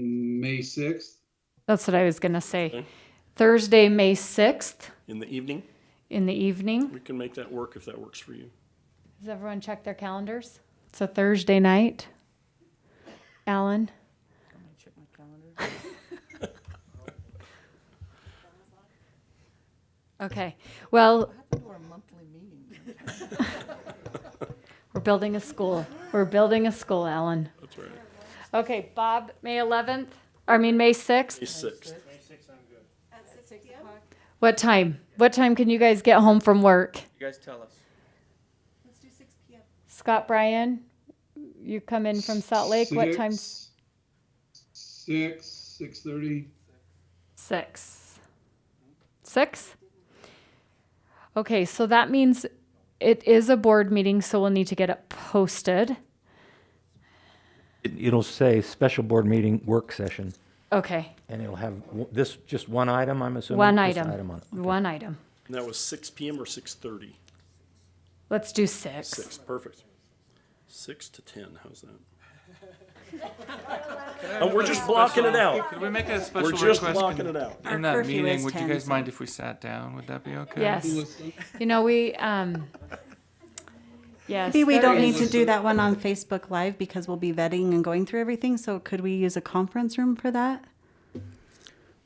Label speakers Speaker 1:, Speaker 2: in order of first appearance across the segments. Speaker 1: May 6th?
Speaker 2: That's what I was gonna say.
Speaker 3: Okay.
Speaker 2: Thursday, May sixth
Speaker 3: in the evening.
Speaker 2: in the evening.
Speaker 3: We can make that work if that works for you.
Speaker 2: Does everyone check their calendars? It's a Thursday night. Alan? Okay, well,
Speaker 4: Or a monthly meeting.
Speaker 2: we're building a school. We're building a school, Alan.
Speaker 3: That's all right.
Speaker 2: Okay, Bob, May eleventh, I mean, May sixth?
Speaker 3: May sixth.
Speaker 2: What time? What time can you guys get home from work?
Speaker 5: You guys tell us.
Speaker 2: Scott Bryan, you come in from Salt Lake, what time?
Speaker 1: Six, Six, six thirty.
Speaker 2: Six. Six? Okay, so that means it is a board meeting, so we'll need to get it posted.
Speaker 6: It- It'll say special board meeting work session,
Speaker 2: Okay,
Speaker 6: and it'll have w- this, just one item, I'm assuming?
Speaker 2: one
Speaker 6: Just
Speaker 2: item,
Speaker 6: on it.
Speaker 2: one item.
Speaker 3: And that was six PM or six thirty?
Speaker 2: Let's do six.
Speaker 3: Six, perfect. Six to ten, how's that? And we're just blocking it out.
Speaker 5: Could we make a special
Speaker 3: We're just
Speaker 5: request
Speaker 3: blocking
Speaker 5: in-
Speaker 3: it out.
Speaker 5: in
Speaker 7: Our
Speaker 5: that
Speaker 7: curfew
Speaker 5: meeting?
Speaker 7: is
Speaker 5: Would you
Speaker 7: 10,
Speaker 5: guys
Speaker 7: so-
Speaker 5: mind if we sat down? Would that be okay?
Speaker 2: Yes, you know, we, um, yes.
Speaker 7: Maybe we
Speaker 2: there
Speaker 7: don't
Speaker 2: is-
Speaker 7: need to do that one on Facebook Live because we'll be vetting and going through everything. So could we use a conference room for that?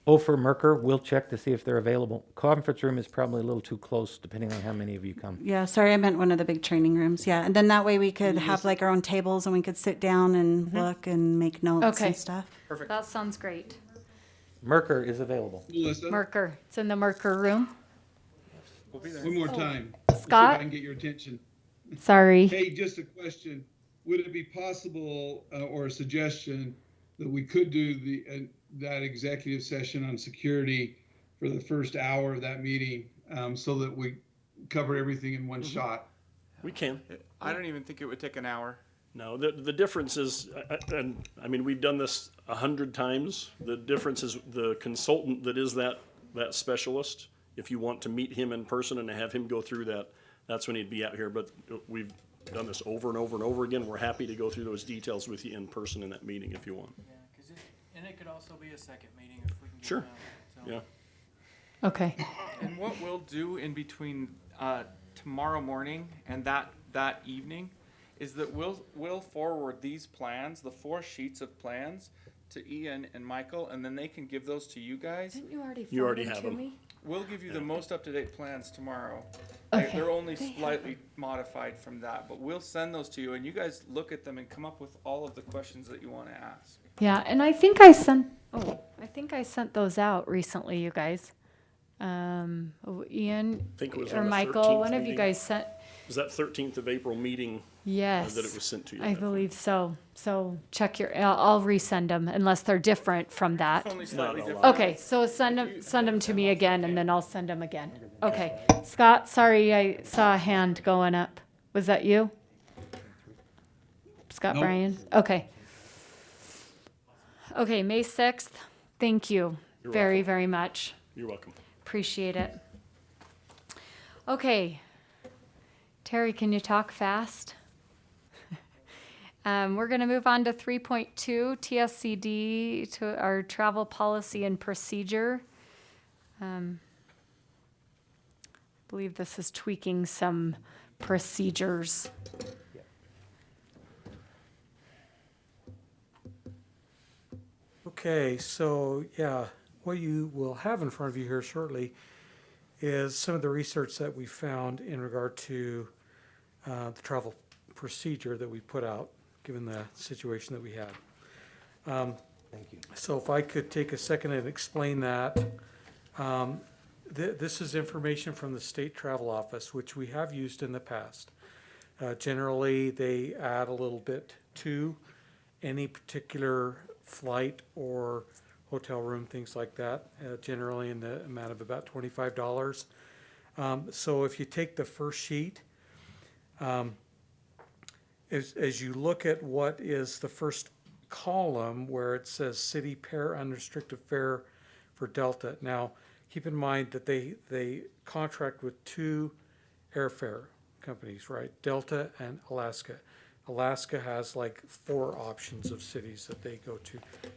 Speaker 6: Ofer Oh, Merker, we'll check to see if they're available. Conference room is probably a little too close, depending on how many of you come.
Speaker 7: Yeah, sorry, I meant one of the big training rooms. Yeah, and then that way we could have like our own tables and we could sit down and look and make notes
Speaker 2: Mm-hmm. Okay.
Speaker 7: and stuff.
Speaker 2: That sounds great.
Speaker 6: Merker is available.
Speaker 1: Melissa,
Speaker 2: Merker, it's in the Merker room.
Speaker 1: one more time. Let's see if I
Speaker 2: Oh. Scott?
Speaker 1: can get your attention.
Speaker 2: Sorry.
Speaker 1: Hey, just a question. Would it be possible uh, or a suggestion that we could do the, uh, that executive session on security for the first hour of that meeting um, so that we cover everything in one shot?
Speaker 3: We can.
Speaker 5: I don't even think it would take an hour.
Speaker 3: No, the, the difference is, I- I- and, I mean, we've done this a hundred times. The difference is the consultant that is that, that specialist, if you want to meet him in person and have him go through that, that's when he'd be out here. But uh, we've done this over and over and over again. We're happy to go through those details with you in person in that meeting if you want.
Speaker 8: And it could also be a second meeting if we can get
Speaker 3: Sure.
Speaker 8: around it, so.
Speaker 3: Yeah.
Speaker 2: Okay,
Speaker 5: And what we'll do in between uh, tomorrow morning and that that evening is that we'll we'll forward these plans, the four sheets of plans, to Ian and Michael, and then they can give those to you guys.
Speaker 2: Didn't you already
Speaker 3: You
Speaker 2: forward
Speaker 3: already
Speaker 2: them
Speaker 3: have
Speaker 2: to
Speaker 3: them.
Speaker 2: me?
Speaker 5: We'll give you the most up to date plans tomorrow. They-
Speaker 2: Okay.
Speaker 5: They're only slightly modified from that, but we'll send those to you, and you guys look at them and come up with all of the questions that you want to ask.
Speaker 2: Yeah, and I think I sent, oh, I think I sent those out recently, you guys. Um, oh, Ian
Speaker 3: Think it was
Speaker 2: or
Speaker 3: on the
Speaker 2: Michael,
Speaker 3: 13th
Speaker 2: one of you
Speaker 3: meeting.
Speaker 2: guys sent,
Speaker 3: Is that thirteenth of April meeting uh,
Speaker 2: yes.
Speaker 3: that it was sent to you?
Speaker 2: I believe so. So check your, I'll, I'll resend them unless they're different from that.
Speaker 5: Only slightly
Speaker 3: a
Speaker 5: different.
Speaker 3: lot.
Speaker 2: Okay, so send them, send them to me again and then I'll send them again. Okay. Scott, sorry, I saw a hand going up. Was that you? Scott
Speaker 1: Nope.
Speaker 2: Bryan? Okay. Okay, May sixth. Thank you
Speaker 3: You're
Speaker 2: very, very much.
Speaker 3: You're welcome.
Speaker 2: Appreciate it. Okay. Terry, can you talk fast? Um, we're gonna move on to three point two, TSCD, to our travel policy and procedure. Um, Believe this is tweaking some procedures.
Speaker 8: Okay, so yeah, what you will have in front of you here shortly is some of the research that we found in regard to uh, the travel procedure that we put out, given the situation that we had. Thank you. So if I could take a second and explain that. Um, thi- This is information from the State Travel Office, which we have used in the past. Uh, Generally, they add a little bit to any particular flight or hotel room, things like that, uh, generally in the amount of about twenty-five dollars. Um, so if you take the first sheet, um, as, as you look at what is the first column where it says city pair unrestricted fare for Delta. Now, keep in mind that they, they contract with two airfare companies, right? Delta and Alaska. Alaska has like four options of cities that they go to.